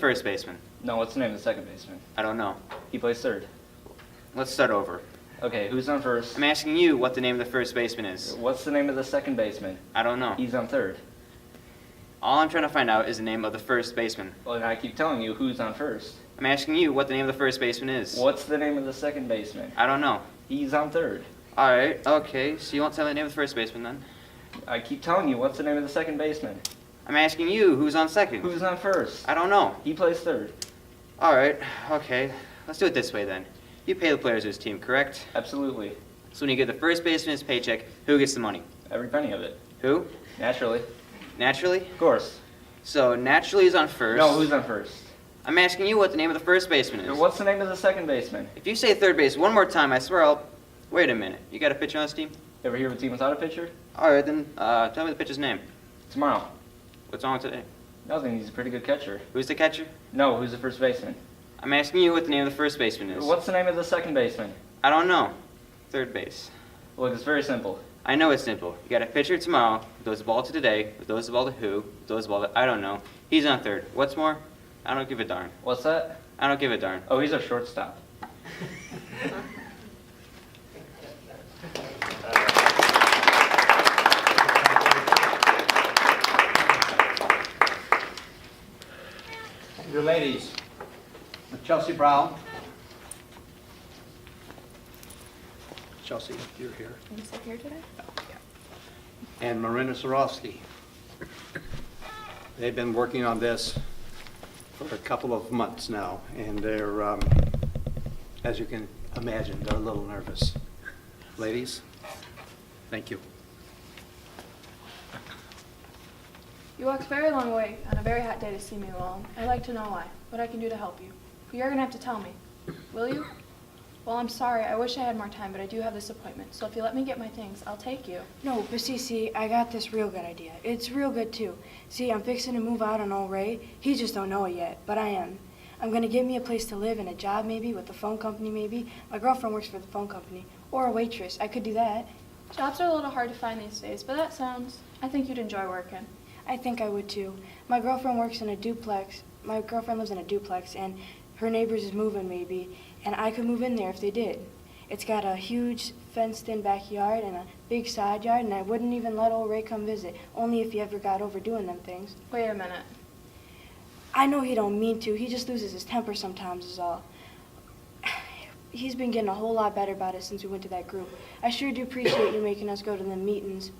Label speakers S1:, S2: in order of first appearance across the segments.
S1: First baseman.
S2: No, what's the name of the second baseman?
S1: I don't know.
S2: He plays third.
S1: Let's start over.
S2: Okay, who's on first?
S1: I'm asking you what the name of the first baseman is.
S2: What's the name of the second baseman?
S1: I don't know.
S2: He's on third.
S1: All I'm trying to find out is the name of the first baseman.
S2: Well, and I keep telling you who's on first.
S1: I'm asking you what the name of the first baseman is.
S2: What's the name of the second baseman?
S1: I don't know.
S2: He's on third.
S1: All right. Okay. So you won't tell me the name of the first baseman then.
S2: I keep telling you what's the name of the second baseman?
S1: I'm asking you who's on second.
S2: Who's on first?
S1: I don't know.
S2: He plays third.
S1: All right. Okay. Let's do it this way then. You pay the players whose team, correct?
S2: Absolutely.
S1: So when you give the first baseman his paycheck, who gets the money?
S2: Every penny of it.
S1: Who?
S2: Naturally.
S1: Naturally.
S2: Of course.
S1: So naturally is on first.
S2: No, who's on first?
S1: I'm asking you what the name of the first baseman is.
S2: What's the name of the second baseman?
S1: If you say third base one more time, I swear I'll. Wait a minute. You got a pitcher on this team?
S2: Ever hear of a team without a pitcher?
S1: All right, then uh, tell me the pitcher's name.
S2: Tomorrow.
S1: What's on today?
S2: Nothing. He's a pretty good catcher.
S1: Who's the catcher?
S2: No, who's the first baseman?
S1: I'm asking you what the name of the first baseman is.
S2: What's the name of the second baseman?
S1: I don't know. Third base.
S2: Look, it's very simple.
S1: I know it's simple. You got a pitcher tomorrow, throws the ball to today, throws the ball to who, throws the ball to I don't know. He's on third. What's more? I don't give a darn.
S2: What's that?
S1: I don't give a darn.
S2: Oh, he's a shortstop.
S3: Your ladies, Chelsea Brown. Chelsea, you're here. Oh,
S4: You still here today?
S3: And Marina Sarofsky. They've been working on this for a couple of months now, and they're, um, as you can imagine, they're a little nervous. Ladies, thank you.
S4: You walked a very long way on a very hot day to see me alone. I'd like to know why, what I can do to help you. But you're gonna have to tell me. Will you? Well, I'm sorry. I wish I had more time, but I do have this appointment. So if you let me get my things, I'll take you.
S5: No, but see, see, I got this real good idea. It's real good too. See, I'm fixing to move out on old Ray. He just don't know it yet, but I am. I'm gonna get me a place to live and a job maybe with the phone company maybe. My girlfriend works for the phone company or a waitress. I could do that.
S4: Jobs are a little hard to find these days, but that sounds. I think you'd enjoy working.
S5: I think I would too. My girlfriend works in a duplex. My girlfriend lives in a duplex and her neighbors is moving maybe, and I could move in there if they did. It's got a huge fenced-in backyard and a big side yard, and I wouldn't even let old Ray come visit, only if he ever got over doing them things.
S4: Wait a minute.
S5: I know he don't mean to. He just loses his temper sometimes is all. He's been getting a whole lot better about it since we went to that group. I sure do appreciate you making us go to the meetings.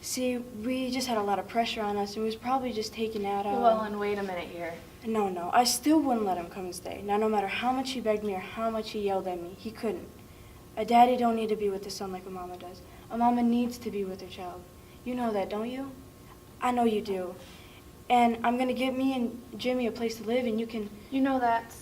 S5: See, we just had a lot of pressure on us, and we was probably just um, taken out on.
S4: Llewellyn, wait a minute here.
S5: No, no, I still wouldn't let him come and stay. Now, no matter how much he begged me or how much he yelled at me, he couldn't. A daddy don't need to be with his son like a mama does. A mama needs to be with her child. You know that, don't you? I know you do. And I'm gonna get me and Jimmy a place to live, and you can,
S4: You know that.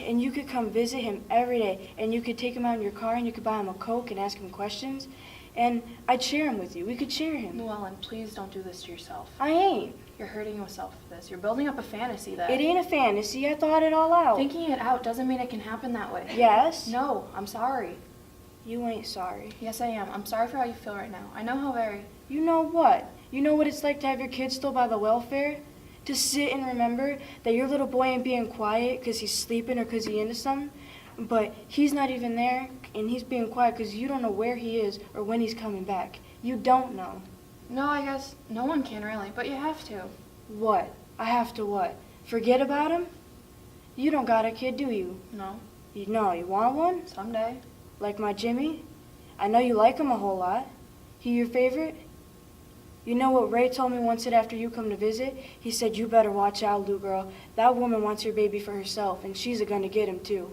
S5: and you could come visit him every day, and you could take him out in your car, and you could buy him a coke and ask him questions, and I'd share him with you. We could share him.
S4: Llewellyn, please don't do this to yourself.
S5: I ain't.
S4: You're hurting yourself with this. You're building up a fantasy that.
S5: It ain't a fantasy. I thought it all out.
S4: Thinking it out doesn't mean it can happen that way.
S5: Yes.
S4: No, I'm sorry.
S5: You ain't sorry.
S4: Yes, I am. I'm sorry for how you feel right now. I know how very.
S5: You know what? You know what it's like to have your kids still by the welfare? To sit and remember that your little boy ain't being quiet 'cause he's sleeping or 'cause he into something, but he's not even there and he's being quiet 'cause you don't know where he is or when he's coming back. You don't know.
S4: No, I guess no one can really, but you have to.
S5: What? I have to what? Forget about him? You don't got a kid, do you?
S4: No,
S5: You know, you want one?
S4: someday.
S5: Like my Jimmy? I know you like him a whole lot. He your favorite? You know what Ray told me once that after you come to visit? He said, You better watch out, Lou girl. That woman wants your baby for herself, and she's a gonna get him too.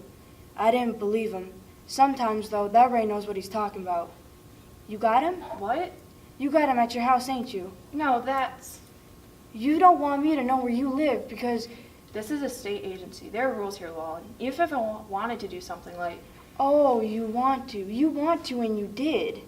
S5: I didn't believe him. Sometimes, though, that Ray knows what he's talking about. You got him?
S4: What?
S5: You got him at your house, ain't you?
S4: No, that's.
S5: You don't want me to know where you live because,
S4: This is a state agency. There are rules here, Llewellyn. Even if I wa- wanted to do something like.
S5: oh, you want to. You want to, and you did.